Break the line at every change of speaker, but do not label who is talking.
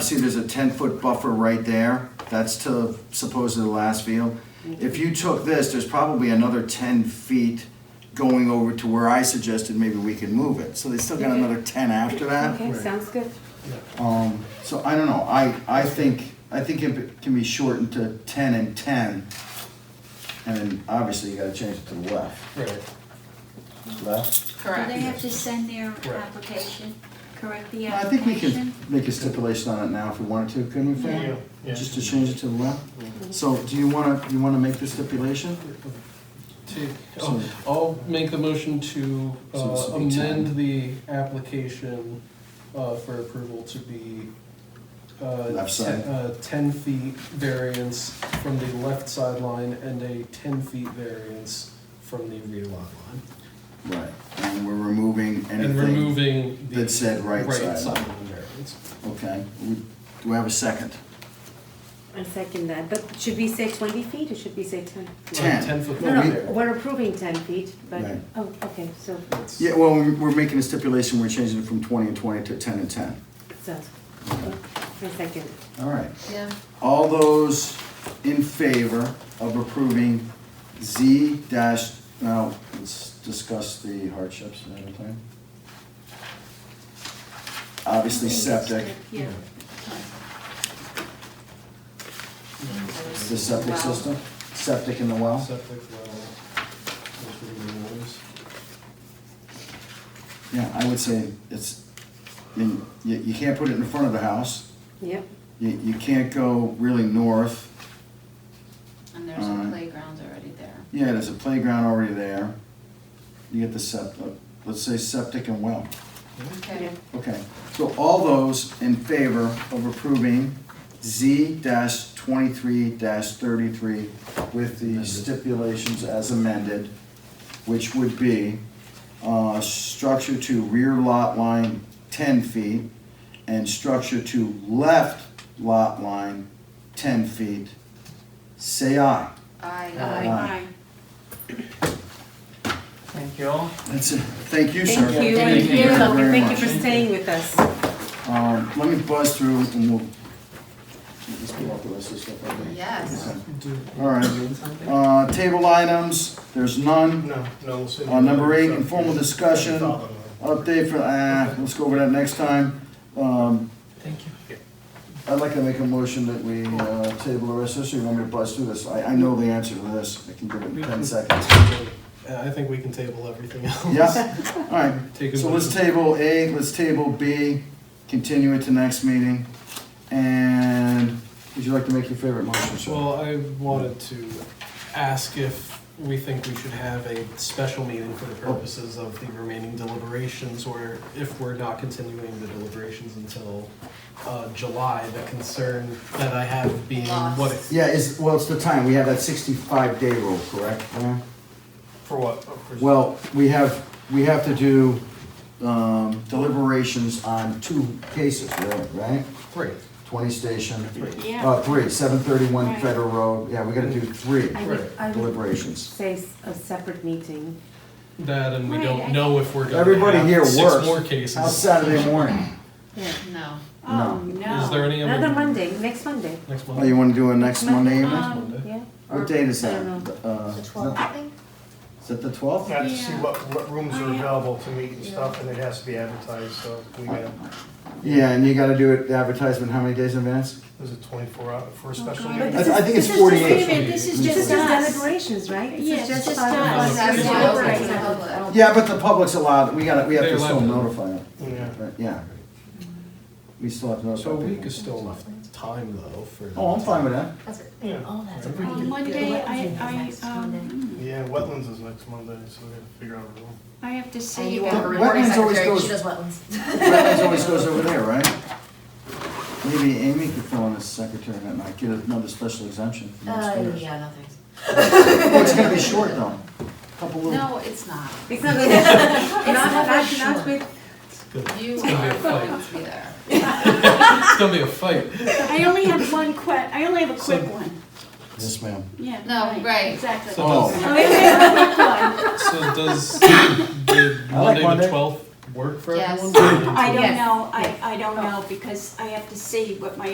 see there's a ten-foot buffer right there, that's to supposedly the last field. If you took this, there's probably another ten feet going over to where I suggested maybe we can move it, so they still got another ten after that.
Okay, sounds good.
Um, so I don't know, I, I think, I think it can be shortened to ten and ten. And then obviously you gotta change it to the left,
Right.
left.
Correct.
Do they have to send their
Right.
application, correct the
I
application?
think we can make a stipulation on it now if we wanted to, couldn't we, Fran?
Yeah, yeah.
Just to change it to the left? So do you wanna, you wanna make the stipulation?
To- I'll- I'll make the motion to
So this
uh,
would be
amend
10.
the application uh, for approval to be uh,
Left side.
ten- uh, ten feet variance from the left sideline and a ten feet variance from the rear lot line.
Right, and we're removing
And
anything,
removing the.
that said right sideline.
sideline variance. Uh,
okay, we, do we have a second?
I second that, but should we say twenty feet or should we say ten?
Ten.
Ten foot.
No,
we-
no, we're approving ten feet, but,
Right.
oh, okay, so,
That's-
Yeah, well, we're we're making a stipulation, we're changing it from twenty and twenty to ten and ten.
so, I second.
All right,
Yeah.
all those in favor of approving Z dash, now, let's discuss the hardships in the plan. Obviously septic,
Yeah.
the septic system, septic in the well.
Septic well, those were the rules.
Yeah, I would say it's, you, you you can't put it in front of the house,
Yep,
you, you can't go really north.
And there's
Uh,
some
Alright.
playgrounds already there.
Yeah, there's a playground already there. You get the septic, let's say septic and well.
Okay.
yep.
Okay, so all those in favor of approving Z dash twenty-three dash thirty-three with the stipulations as amended, which would be, uh, structure to rear lot line ten feet and structure to left lot line ten feet, say aye.
Uh,
Aye.
I,
Thank you all.
That's it. Thank you, sir.
Thank you,
Thank
and
you.
you're welcome,
very
thank you
much.
for staying with us.
Um, let me buzz through and we'll. Let's pull out the rest of this stuff, I think.
yes.
Do-
All right, uh, table items, there's none.
No, no, oh, we'll see.
Uh, number eight, informal discussion, update for, ah, let's go over that next time. Um,
Thank you.
I'd like to make a motion that we, uh, table the rest of this, or you want me to buzz through this? I, I know the answer to this, I can give it in ten seconds.
I think we can table everything else.
Yeah, all right,
Take a
so let's
motion.
table A, let's table B, continue it to next meeting. And would you like to make your favorite motion, sir?
Well, I wanted to ask if we think we should have a special meeting for the
Oh.
purposes of the remaining deliberations, or if we're not continuing the deliberations until uh, July, the concern that I have being what,
Lost.
Yeah, is, well, it's the time, we have that sixty-five day rule, correct?
for what?
Well, we have, we have to do um, deliberations on two cases, really, right?
Great.
Twenty Station,
Yeah.
uh, three, seven thirty-one
Right.
Federal Road, yeah, we gotta do three
I would, I would
deliberations.
say s- a separate meeting.
That, and we
Right,
don't
I-
know if we're
Everybody
gonna
here
have six
works.
more cases.
How's Saturday morning?
Yeah.
No.
No.
Oh, no.
Is there any other-
Another Monday, next Monday.
Next
Oh, you
month.
wanna do it next Monday evening?
Next
Um,
Monday.
Yeah.
What date is
I
that?
don't know.
Uh,
The twelfth, I think.
Is that the twelfth?
Not to see
Yeah.
what, what rooms are
Oh, yeah.
available to meet and stuff, and it has to be advertised, so we got,
Yeah, and you gotta do it, the advertisement, how many days in advance?
there's a twenty-four hour, for a special
God.
meeting.
I, I think it's
This is just-
forty-eight.
wait a minute, This is
This is
just
just
us.
deliberations, right? This
Yeah,
is
it's
just
just
five of
us.
us.
That's
We're
why I was
deliberating.
like, public.
Yeah, but the public's allowed, we gotta, we have
They're
to still
allowed to.
notify them,
Yeah.
Right, yeah. We still have to notify
So a
people.
week is still enough time, though, for.
Oh, I'm fine with that.
That's
Yeah.
Oh, that's a
Um,
pretty good.
Monday, I, I,
Next Monday.
um,
Yeah, wetlands is next Monday, so we gotta figure out a room.
I have to
And
see
you
about.
want a
Wetlands
recording
always
secretary,
goes-
she does wetlands.
Wetlands always goes over there, right? Maybe Amy could fill in as secretary that night, get another special exemption from
Uh,
upstairs.
yeah, no thanks.
Well, it's gonna be short though, couple little.
No, it's not.
It's not gonna, not, not,
not
not with,
You
gonna be
are
a fight.
going to be there.
Oh,
It's gonna be a fight.
I only have one que, I only have a quick one,
Yes, ma'am.
yeah.
No, right.
Exactly.
So
Oh.
does-
I only have a quick one.
So does the
I like
Monday
Monday.
the twelfth work for
Yes.
everyone?
I don't
Yes.
know, I,
Yes.
I don't
Oh.
Oh.
know, because I have to see what my